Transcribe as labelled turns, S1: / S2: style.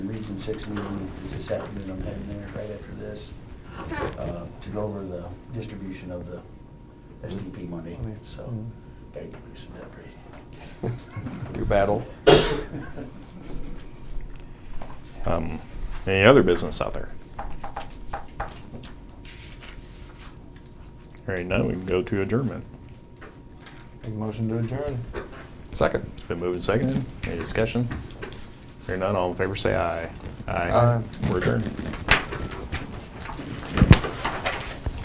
S1: and six meeting is this afternoon, I'm heading there right after this, uh, to go over the distribution of the SDP money, so, gotta get loosened up,
S2: Your battle.
S1: right?
S3: Um, any other business out there? Hearing none, we can go to adjournment.
S4: Make a motion to adjourn.
S2: Second.
S3: It's been moved and seconded. Any discussion? Hearing none, all in favor say aye.
S2: Aye.
S3: We're adjourned.